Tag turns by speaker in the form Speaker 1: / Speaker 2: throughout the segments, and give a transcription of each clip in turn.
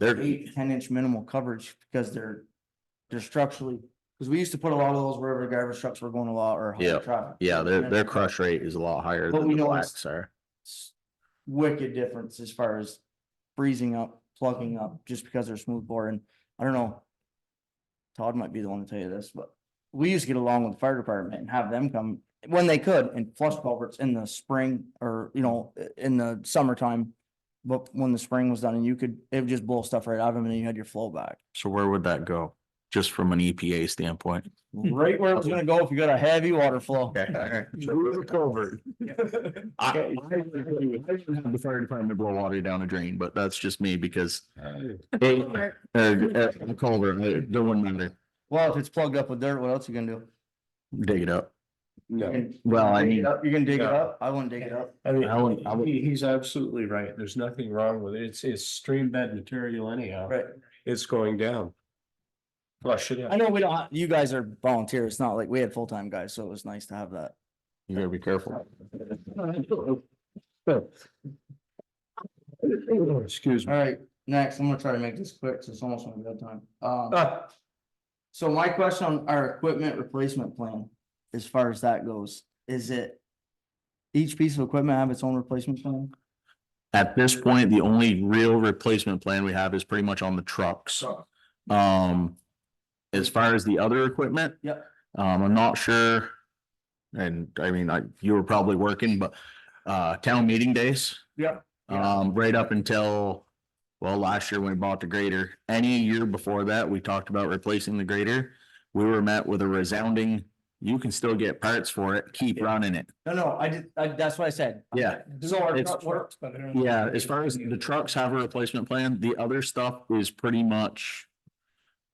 Speaker 1: They're,
Speaker 2: eight, ten inch minimal coverage because they're, they're structurally, because we used to put a lot of those wherever garbage trucks were going a lot or.
Speaker 1: Yeah,
Speaker 2: highway traffic.
Speaker 1: yeah, their,
Speaker 2: And
Speaker 1: their crush rate is a lot higher
Speaker 2: But
Speaker 1: than
Speaker 2: we
Speaker 1: the
Speaker 2: know
Speaker 1: blacks are.
Speaker 2: it's Wicked difference as far as freezing up, plugging up, just because they're smooth bore and I don't know. Todd might be the one to tell you this, but we used to get along with the fire department and have them come when they could and flush culverts in the spring or, you know, i- in the summertime. But when the spring was done and you could, it would just blow stuff right out of them and then you had your flow back.
Speaker 3: So where would that go? Just from an EPA standpoint?
Speaker 2: Right where it's gonna go if you got a heavy water flow.
Speaker 3: Culvert. I, I would agree with- I would have the fire department blow water down a drain, but that's just me because they, uh, uh, culvert, they, they wouldn't matter.
Speaker 2: Well, if it's plugged up with dirt, what else you gonna do?
Speaker 3: Dig it up.
Speaker 2: You
Speaker 4: No,
Speaker 2: can-
Speaker 3: Well, I
Speaker 2: dig it
Speaker 3: mean-
Speaker 2: up- You're gonna dig it
Speaker 4: Yeah.
Speaker 2: up? I wouldn't dig it up.
Speaker 4: I
Speaker 3: I wouldn't- I
Speaker 4: mean,
Speaker 3: wouldn't-
Speaker 4: he- he's absolutely right. There's nothing wrong with it. It's, it's stream bed material anyhow.
Speaker 2: Right.
Speaker 4: It's going down. Flush it
Speaker 2: I
Speaker 4: out.
Speaker 2: know we don't, ha- you guys are volunteers. It's not like we had full-time guys, so it was nice to have that.
Speaker 3: You gotta be careful.
Speaker 4: Excuse
Speaker 2: All
Speaker 4: me.
Speaker 2: right, next, I'm gonna try to make this quick, 'cause it's almost my bedtime.
Speaker 3: Uh,
Speaker 2: Um
Speaker 4: Ah,
Speaker 2: so my question on our equipment replacement plan, as far as that goes, is it each piece of equipment have its own replacement plan?
Speaker 3: At this point, the only real replacement plan we have is pretty much on the trucks. Um, as far as the other equipment.
Speaker 2: Yep.
Speaker 3: Um, I'm not sure. And I mean, I, you were probably working, but, uh, town meeting days.
Speaker 2: Yep.
Speaker 3: Um, right up until, well, last year when we bought the grader, any year before that, we talked about replacing the grader. We were met with a resounding, you can still get parts for it, keep running it.
Speaker 2: No, no, I did, I, that's what I said.
Speaker 3: Yeah.
Speaker 2: This is all our
Speaker 3: It's-
Speaker 2: truck work.
Speaker 3: Yeah, as far as the trucks have a replacement plan, the other stuff is pretty much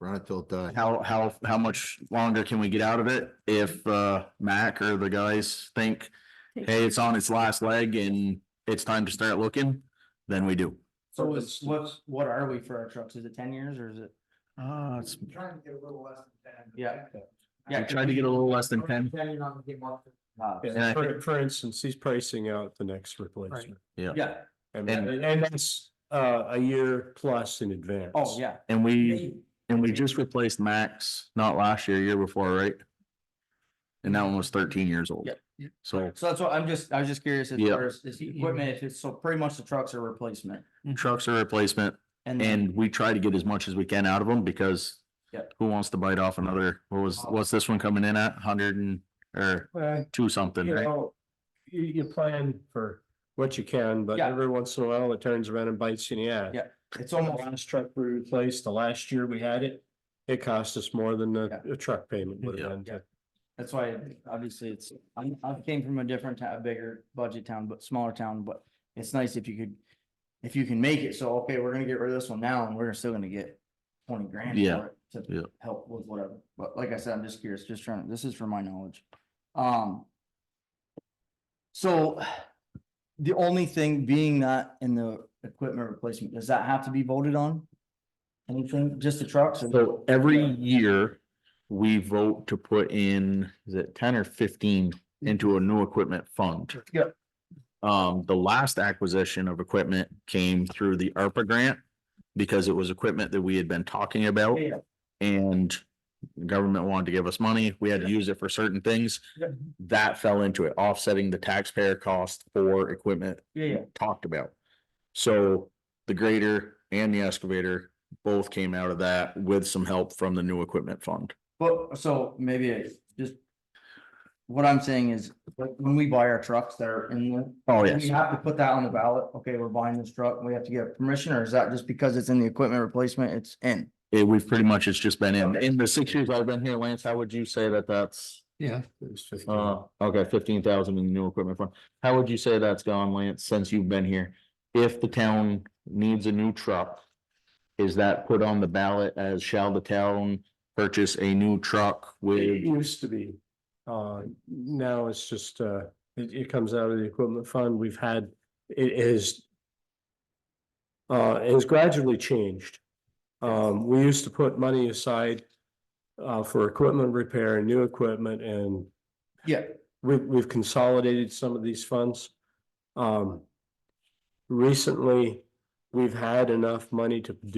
Speaker 5: Run it till it dies.
Speaker 3: how, how, how much longer can we get out of it if, uh, Mac or the guys think, hey, it's on its last leg and it's time to start looking, then we do.
Speaker 2: So what's, what's, what are we for our trucks? Is it ten years or is it?
Speaker 3: Uh, it's,
Speaker 2: Trying to get a little less than ten. Yeah. Yeah. Uh,
Speaker 3: I tried to get a little less than ten.
Speaker 2: Depending on the amount of-
Speaker 4: yeah,
Speaker 3: And I
Speaker 4: For, for instance, he's pricing out the next replacement.
Speaker 2: Yeah,
Speaker 4: And,
Speaker 3: And-
Speaker 4: and that's, uh, a year plus in advance.
Speaker 2: oh, yeah.
Speaker 3: And we, and we just replaced Max, not last year, year before, right? And that one was thirteen years old.
Speaker 2: Yep.
Speaker 3: So
Speaker 2: So that's what I'm just, I was just curious as
Speaker 3: Yeah.
Speaker 2: far as this equipment, if it's, so pretty much the trucks are replacement.
Speaker 3: trucks are replacement
Speaker 2: then-
Speaker 3: and we try to get as much as we can out of them because
Speaker 2: Yep.
Speaker 3: who wants to bite off another, what was, what's this one coming in at? Hundred and, or
Speaker 4: Well,
Speaker 3: two something,
Speaker 4: you
Speaker 3: right?
Speaker 4: know, you, you plan for what you can, but
Speaker 2: Yeah.
Speaker 4: every once in a while it turns around and bites you in the ass.
Speaker 2: Yeah. It's
Speaker 4: The
Speaker 2: almost,
Speaker 4: last truck we replaced, the last year we had it, it cost us more than the,
Speaker 2: Yeah.
Speaker 4: the truck payment would
Speaker 3: Yeah.
Speaker 4: have been.
Speaker 2: that's why, obviously, it's, I'm, I came from a different town, a bigger budget town, but smaller town, but it's nice if you could, if you can make it, so, okay, we're gonna get rid of this one now, and we're still gonna get twenty grand
Speaker 3: Yeah.
Speaker 2: for it
Speaker 3: Yeah.
Speaker 2: to help with whatever, but like I said, I'm just curious, just trying, this is for my knowledge. Um. So, the only thing being that in the equipment replacement, does that have to be voted on? Anything, just the trucks? or-
Speaker 3: So every year, we vote to put in, is it ten or fifteen into a new equipment fund?
Speaker 2: Yep.
Speaker 3: Um, the last acquisition of equipment came through the ARPA grant because it was equipment that we had been talking about.
Speaker 2: Yeah.
Speaker 3: And the government wanted to give us money. We had to use it for certain things.
Speaker 2: Yep.
Speaker 3: That fell into it, offsetting the taxpayer cost for equipment
Speaker 2: Yeah, yeah.
Speaker 3: talked about. So the grader and the excavator both came out of that with some help from the new equipment fund.
Speaker 2: But, so maybe it's just. What I'm saying is, like, when we buy our trucks that are in the.
Speaker 3: Oh,
Speaker 2: We have to put that on the ballot, okay, we're buying this truck, we have to get permission, or is that just because it's in the equipment replacement, it's in?
Speaker 3: It, we've pretty much, it's just been in, in the six years I've been here, Lance, how would you say that that's,
Speaker 4: Yeah. It was fifteen.
Speaker 3: uh, okay, fifteen thousand in the new equipment fund? How would you say that's gone, Lance, since you've been here? If the town needs a new truck, is that put on the ballot as shall the town purchase a new truck
Speaker 4: It
Speaker 3: with?
Speaker 4: used to be. Uh, now it's just, uh, it, it comes out of the equipment fund. We've had, it is. Uh, it has gradually changed. Um, we used to put money aside. Uh, for equipment repair and new equipment and
Speaker 2: Yeah.
Speaker 4: we, we've consolidated some of these funds. Um. Recently, we've had enough money to do